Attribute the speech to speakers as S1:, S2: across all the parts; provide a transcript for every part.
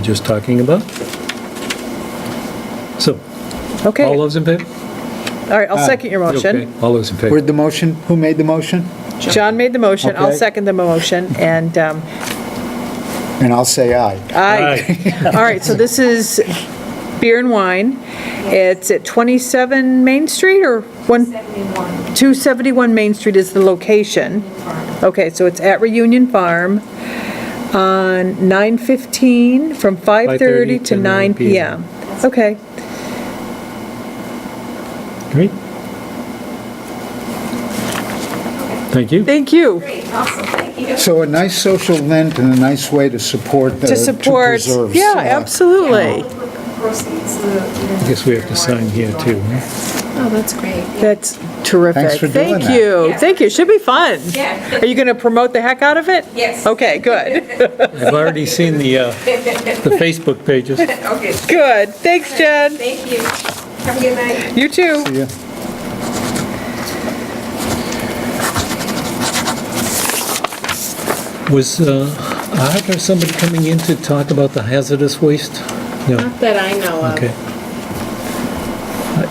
S1: just talking about. So,
S2: Okay,
S1: all
S2: all
S1: those in favor?
S2: right,
S3: Ah,
S2: I'll second your
S1: Okay,
S2: motion.
S1: All those in favor?
S3: Where'd the motion, who made the motion?
S2: John made the motion, I'll
S3: Okay.
S2: second the motion, and um,
S3: And I'll say aye.
S2: aye. All right, so this is beer and wine. It's at 27 Main Street or one?
S4: 71
S2: 271 Main Street is the location.
S4: Farm.
S2: Okay, so it's at Reunion Farm on 9:15, from 5:30 to 9 PM. Okay,
S1: Great. Thank you.
S2: thank you.
S4: Great, awesome, thank you.
S3: So a nice social event and a nice way to support the,
S2: To
S3: to
S2: support,
S3: preserve.
S2: yeah,
S3: uh,
S2: absolutely.
S4: Proceeds the-
S1: I guess we have to sign here too. huh?
S4: Oh, that's great.
S2: That's terrific.
S3: Thanks for doing
S2: Thank
S3: that.
S2: you,
S4: Yeah.
S2: thank you, should be fun.
S4: Yeah.
S2: Are you going to promote the heck out of it?
S4: Yes.
S2: Okay, good,
S1: I've already seen the, uh, the Facebook pages.
S4: Okay,
S2: good. Thanks, Jen.
S4: thank you. Have a good night.
S2: You too.
S3: Yeah.
S1: Was uh, Art or somebody coming in to talk about the hazardous waste? No,
S5: Not that I know of.
S1: okay.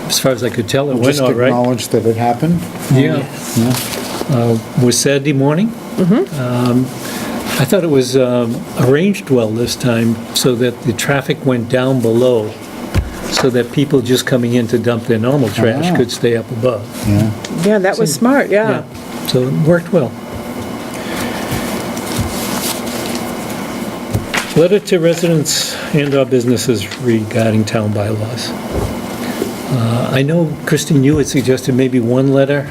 S1: As far as I could tell, it went
S3: Just
S1: all right.
S3: acknowledge that it happened.
S1: Yeah. Uh, Was Saturday morning. Um, I thought it was um, arranged well this time so that the traffic went down below, so that people just coming in to dump their normal trash
S3: Ah.
S1: could stay up above.
S2: Yeah, that was smart, yeah.
S1: So it worked well. Letter to residents and/or businesses regarding town bylaws. Uh, I know, Kristen, you had suggested maybe one letter.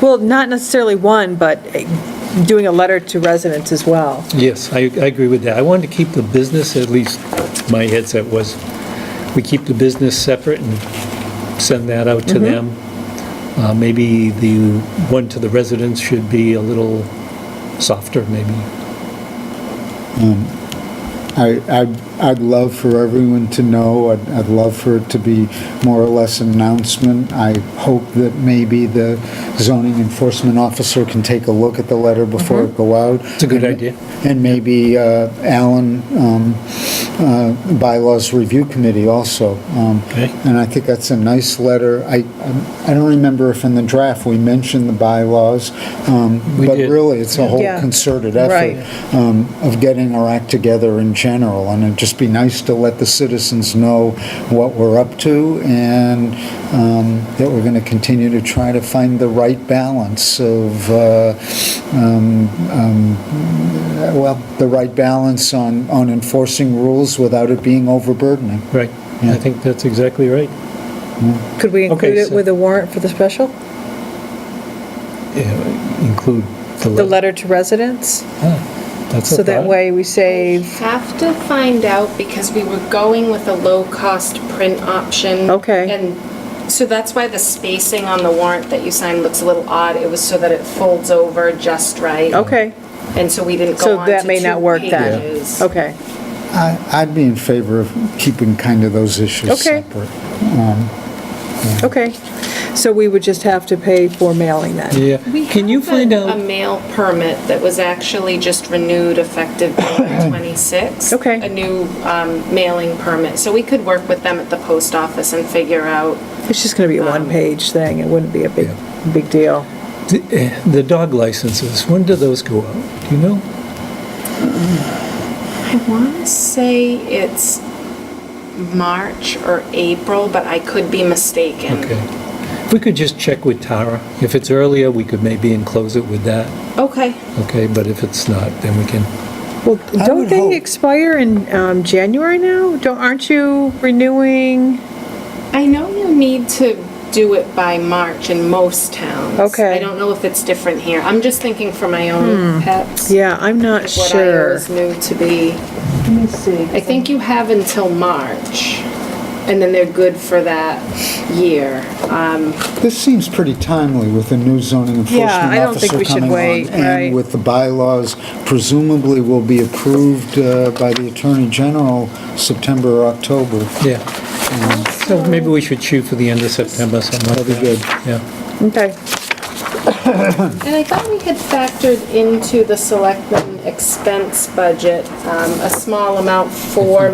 S2: Well, not necessarily one, but eh, doing a letter to residents as well.
S1: Yes, I, I agree with that. I wanted to keep the business, at least my headset was, we keep the business separate and send that out to them. Uh, Maybe the one to the residents should be a little softer, maybe.
S3: I, I'd, I'd love for everyone to know, I'd, I'd love for it to be more or less an announcement. I hope that maybe the zoning enforcement officer can take a look at the letter before it go out. It's
S1: Mm-hmm. a good idea.
S3: And maybe uh, Alan, um, uh, Bylaws Review Committee also. Um,
S1: Okay.
S3: And I think that's a nice letter. I, I don't remember if in the draft we mentioned the bylaws, um,
S1: We
S3: but
S1: did.
S3: really, it's a whole
S2: Yeah.
S3: concerted
S2: Right.
S3: effort um, of getting our act together in general, and it'd just be nice to let the citizens know what we're up to, and um, that we're going to continue to try to find the right balance of, uh, um, um, well, the right balance on, on enforcing rules without it being overburdening.
S1: Right. I think that's exactly right.
S2: Could we
S1: Okay,
S2: include it
S1: so-
S2: with a warrant for the special?
S1: Yeah, Include the letter.
S2: The letter to residents?
S1: That's a
S2: So that
S1: thought.
S2: way we
S5: I
S2: save,
S5: have to find out because we were going with a low-cost print option.
S2: Okay.
S5: And so that's why the spacing on the warrant that you signed looks a little odd. It was so that it folds over just right.
S2: okay,
S5: And so we didn't
S2: So
S5: go on
S2: that
S5: to
S2: may
S5: two
S2: not work then.
S5: pages.
S2: okay.
S3: I- I'd be in favor of keeping kind of those issues
S2: Okay.
S3: separate.
S2: Okay, so we would just have to pay for mailing then?
S5: We
S1: Yeah. Can you
S5: have
S1: find
S5: a- um,
S1: out?
S5: A mail permit that was actually just renewed effective July 26.
S2: Okay.
S5: A new um, mailing permit. So we could work with them at the post office and figure out
S2: It's just going to be a
S5: Um,
S2: one-page thing, it wouldn't be a big, big deal.
S1: The eh, the dog licenses, when do those go out? Do you know?
S5: I want to say it's March or April, but I could be mistaken.
S1: Okay. If we could just check with Tara. If it's earlier, we could maybe enclose it with that,
S5: Okay.
S1: okay? But if it's not, then we can,
S2: Well,
S3: I
S2: don't
S3: would
S2: they
S3: hope-
S2: expire in um, January now? Don't, aren't you renewing?
S5: I know you need to do it by March in most towns.
S2: Okay.
S5: I don't know if it's different here. I'm just thinking for my own pets.
S2: Yeah, I'm not
S5: What I
S2: sure.
S5: always knew to be.
S2: Let me see.
S5: I think you have until March, and then they're good for that year.
S3: This seems pretty timely with the new zoning enforcement
S2: Yeah, I don't think
S3: officer
S2: we should
S3: coming
S2: wait,
S3: on.
S2: right.
S3: And with the bylaws presumably will be approved uh, by the Attorney General September or October.
S1: yeah. So maybe we should shoot for the end of September, something like that.
S3: That'd be good.
S1: Yeah.
S2: Okay,
S5: And I thought we had factored into the selectmen expense budget um, a small amount for